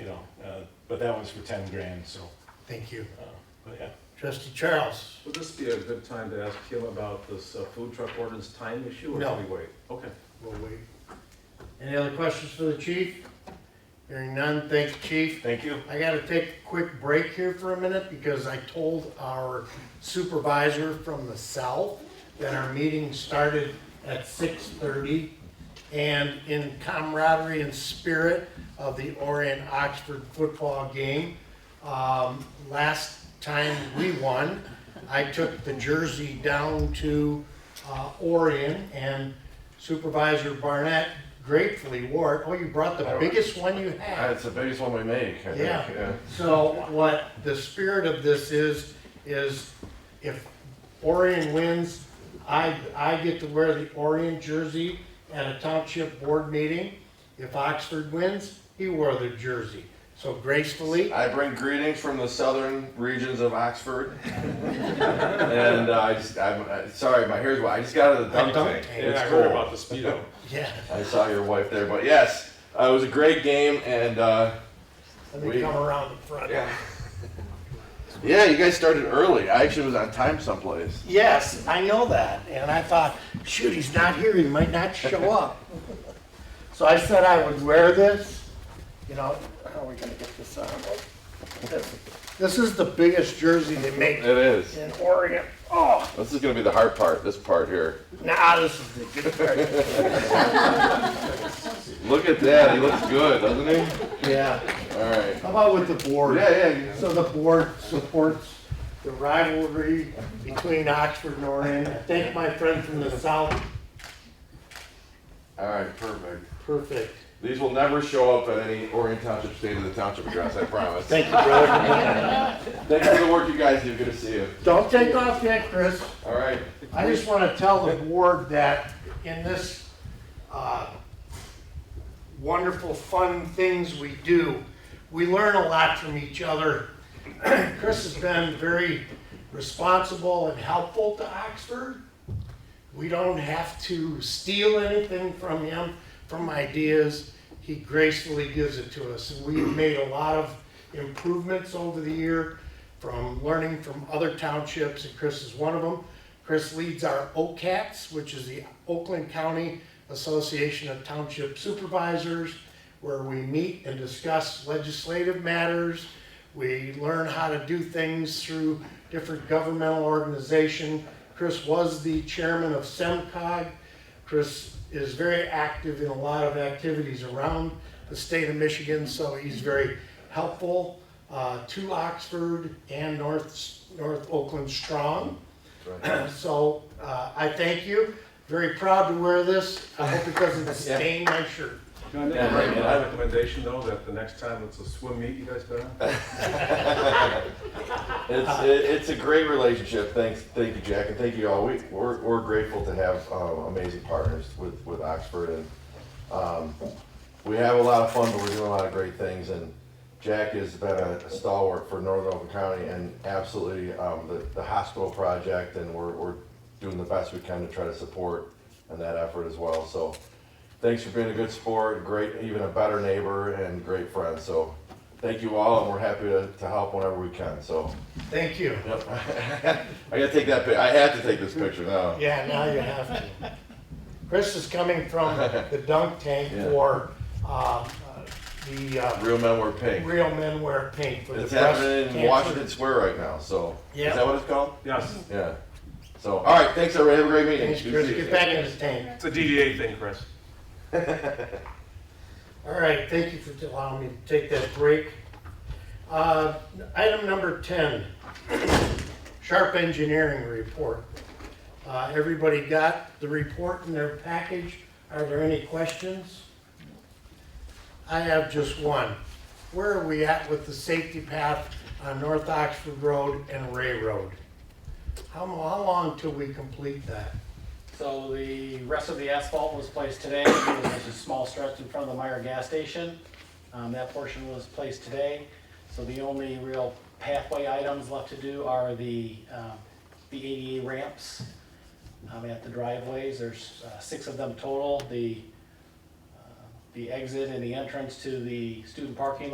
uh, but that was for ten grand, so, Thank you. uh, but yeah. Trustee Charles? Would this be a good time to ask him about this uh, food truck ordinance time issue, or No. should we wait? Okay. We'll wait. Any other questions for the chief? Hearing none, thank you, chief. Thank you. I gotta take a quick break here for a minute because I told our supervisor from the south that our meeting started at six thirty. And in camaraderie and spirit of the Orient Oxford football game, um, last time we won, I took the jersey down to, uh, Orion and Supervisor Barnett gratefully wore it. Oh, you brought the biggest one you had. That's the biggest one we make, I think, Yeah. yeah. So what the spirit of this is, is if Orion wins, I, I get to wear the Orion jersey at a township board meeting. If Oxford wins, he wore the jersey. So gracefully, I bring greetings from the southern regions of Oxford. and uh, I just, I'm I, sorry, my here's why. I just got out of the I dunk dunked tank. it. It's Yeah, I heard cool. about the speedo. yeah, I saw your wife there, but yes, uh, it was a great game, and uh, let me We- come around the front. yeah, you guys started early. I actually was on time someplace. Yes, I know that, and I thought, shoot, he's not here, he might not show up. So I said I would wear this, you know, how are we gonna get this on? This is the biggest jersey they make It is. in Oregon. Oh, This is gonna be the hard part. This part here. nah, this is the good part. Look at that. He looks good, doesn't he? Yeah, All right. how about with the board? Yeah, yeah. So the board supports the rivalry between Oxford and Oregon. Thank my friend from the south, All right. Perfect. perfect. These will never show up at any Orion Township State of the Township address. I promise. Thank you, brother. Thanks for the work you guys do. Good to see you. Don't take off yet, Chris. All right. I just want to tell the board that in this uh, wonderful, fun things we do, we learn a lot from each other. Chris has been very responsible and helpful to Oxford. We don't have to steal anything from him, from ideas. He gracefully gives it to us. And We've made a lot of improvements over the year from learning from other townships, and Chris is one of them. Chris leads our OCATS, which is the Oakland County Association of Township Supervisors, where we meet and discuss legislative matters. We learn how to do things through different governmental organization. Chris was the chairman of SEMCOG. Chris is very active in a lot of activities around the state of Michigan, so he's very helpful uh, to Oxford and North, North Oakland strong. So uh, I thank you. Very proud to wear this. I hope it doesn't stain my shirt. Can I make Yeah, right, a yeah. my recommendation, though, that the next time it's a swim meet, you guys better? It's it, it's a great relationship. Thanks, thank you, Jack, and thank you all. We we're, we're grateful to have um, amazing partners with with Oxford, and um, we have a lot of fun, but we're doing a lot of great things. And Jack has been a, stalwart for Northern Oakland County, and absolutely um, the the hospital project, and we're we're doing the best we can to try to support in that effort as well. So. Thanks for being a good sport, great, even a better neighbor, and great friend. So, thank you all, and we're happy to, to help whenever we can. So, Thank you. Yep. I gotta take that. Pic- I have to take this picture now. Yeah, now you have to. Chris is coming from the dunk tank Yeah. for uh, uh, the uh, Real men wear pink. Real Men Wear Pink for the It's breast happening in cancer. Washington Square right now. So Yeah. is that what it's called? Yes, Yeah. So all right. Thanks everybody. Have a great meeting. Thanks, Good Chris. to see you. Get back in the tank. it's a DDA thing, Chris. All right, thank you for allowing me to take that break. Uh, Item number 10, Sharp Engineering Report. Uh, Everybody got the report in their package? Are there any questions? I have just one. Where are we at with the safety path on North Oxford Road and Ray Road? How mo- how long till we complete that? So the rest of the asphalt was placed today, there's a small stretch in front of the Meyer gas station. Um, that portion was placed today, so the only real pathway items left to do are the, um, the ADA ramps um, at the driveways, there's uh, six of them total, the, uh, the exit and the entrance to the student parking lot.